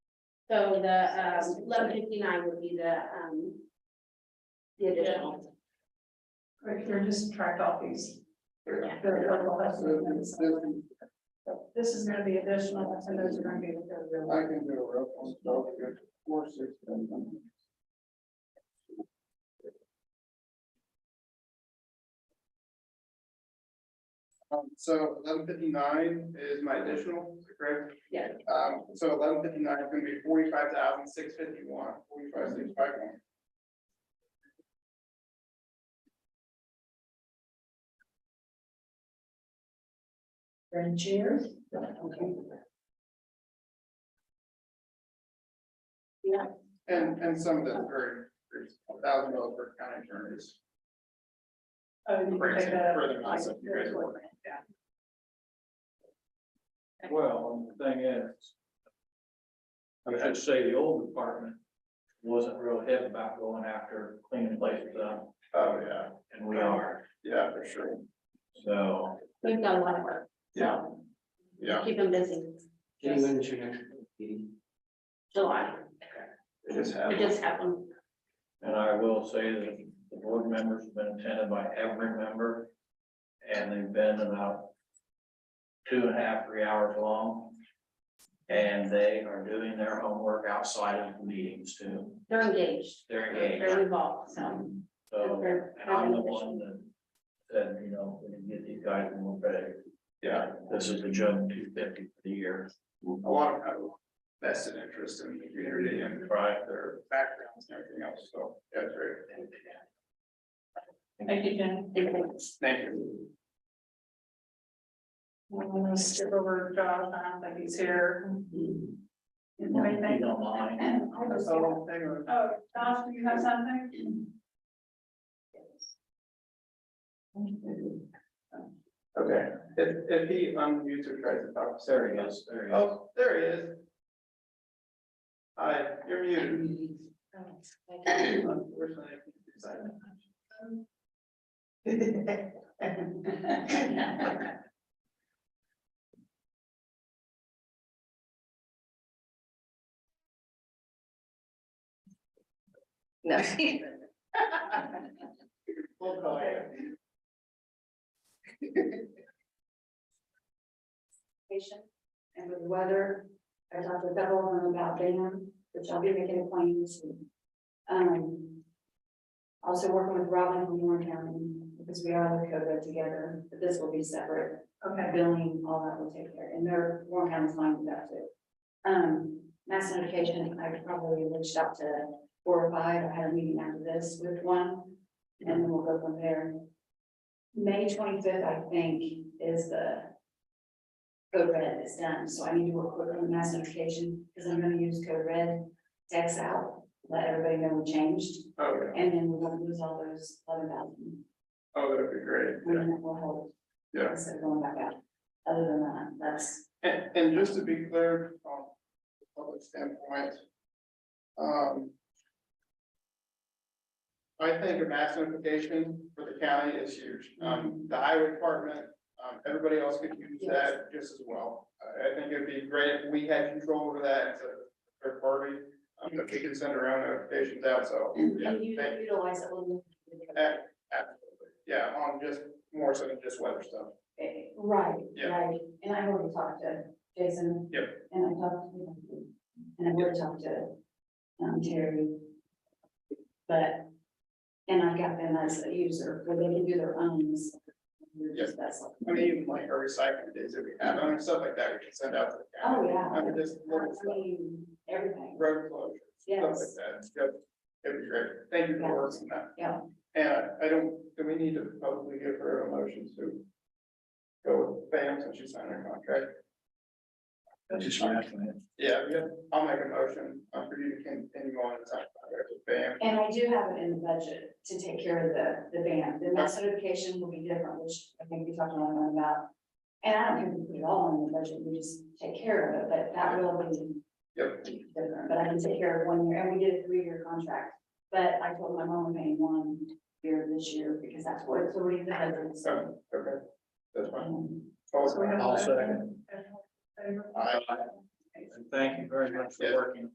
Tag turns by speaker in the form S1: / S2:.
S1: So the, um, eleven fifty-nine would be the, um. The additional.
S2: Right here, just track off these.
S1: Yeah.
S2: the local
S3: Um,
S2: bus movements. So This is gonna be additional, and those are gonna be. the-
S3: I can do a reference, don't get four, six, seven. Um, so eleven fifty-nine is my additional, correct?
S1: Yeah.
S3: Um, so eleven fifty-nine is gonna be forty-five thousand, six fifty-one, forty-five, six, five, one.
S2: Grand chairs. Oh,
S3: And, and some of the very, thousand dollars for county attorneys.
S2: Oh, you can
S3: Brings
S2: take
S3: it
S2: that up.
S3: further than us if you guys want.
S2: Yeah.
S4: Well, and the thing is. I should say the old department wasn't real hip about going after cleaning places up,
S3: Oh, yeah,
S4: and we are,
S3: yeah, for sure,
S4: so.
S1: We've done a lot of work,
S3: yeah,
S1: so
S3: yeah,
S1: keep them busy.
S5: Kenny, when's your next meeting?
S1: July,
S3: it just
S1: it
S3: happened.
S1: just happened.
S4: And I will say that the board members have been attended by every member. And they've been about two and a half, three hours long. And they are doing their homework outside of the meetings too.
S1: They're engaged.
S4: They're engaged.
S1: They're involved, so.
S4: So,
S1: They're-
S4: and I'm the one that said, you know, we can get these guys more credit.
S3: Yeah.
S4: This is a jump two fifty for the year.
S3: a lot of people vested interest in the community and
S4: Right.
S3: their backgrounds and everything else, so that's very.
S2: Thank you, Jen.
S3: Thank you.
S2: I'm gonna skip over Jonathan, like he's here. Is there
S4: You
S2: anything?
S4: don't mind.
S3: That's the whole thing, or-
S2: Oh, Josh, do you have something?
S3: Okay, if, if he unmutes or tries to talk,
S4: There
S3: sorry,
S4: he is, there he is.
S3: oh, there he is. Hi, you're muted. Unfortunately, I can't do silent.
S6: No.
S3: We'll call you.
S6: patient and with weather. I talked with everyone about Bingham, which I'll be making appointments. and, Um. Also working with Robin from Warren County, because we are Lakota together, but this will be separate.
S2: Okay,
S6: Billing, all that will take care, and their Warren County's fine with that too. Um, mass notification, I probably reached out to four or five, I had a meeting after this with one, and then we'll go from there. May twenty-fifth, I think, is the code red is done, so I need to work quick on the mass notification, because I'm gonna use code red, text out, let everybody know we changed,
S3: Oh, yeah,
S6: and then we won't lose all those eleven thousand.
S3: oh, that'd be great,
S6: I
S3: yeah.
S6: mean, that will hold.
S3: Yeah.
S6: Instead of going back out. Other than that, that's,
S3: And, and just to be clear, um, from a public standpoint, um, I think a mass notification for the county is huge.
S6: Mm-hmm.
S3: Um, the highway department, um, everybody else could use that just as well. I, I think it'd be great if we had control over that as a third party, um, that we can send around notifications out, so. yeah,
S6: Mm-hmm. and you
S3: thank-
S6: utilize it when.
S3: a- Absolutely, yeah, on just, more so than just weather stuff.
S6: Eh, Right,
S3: Yeah.
S6: right, and I already talked to Jason.
S3: Yep.
S6: And I talked, to- and I would talk to, um, Terry. But, and I got them as a user, where they can do their own.
S3: Yep.
S6: That's like,
S3: I mean, even like our recycling days that we have, I mean, stuff like that we can send out to the county.
S6: oh, yeah.
S3: I mean, just little
S6: I
S3: stuff.
S6: mean, everything,
S3: road closure, stuff
S6: yes.
S3: like that. Yep. It'd be great. Thank you for working that.
S6: Yeah.
S3: And I don't, do we need to probably give her a motion to go with Pam since she signed her contract?
S4: That's just what happened.
S3: Yeah, yeah, I'll make a motion uh, for you to continue on and sign contract with Pam.
S6: And I do have it in the budget to take care of the, the ban, the mass notification will be different, which I think we talked a lot about. And I don't think we put it all in the budget, we just take care of it, but that will be.
S3: Yep.
S6: Different, but I can take care of one year, and we did a three-year contract, but I told my mom I'm paying one year this year, because that's what it's already the hundred, so.
S3: So, okay, that's fine.
S6: um,
S2: So we have-
S4: I'll second.
S2: Favor?
S3: Aye.
S4: And thank you very much for working.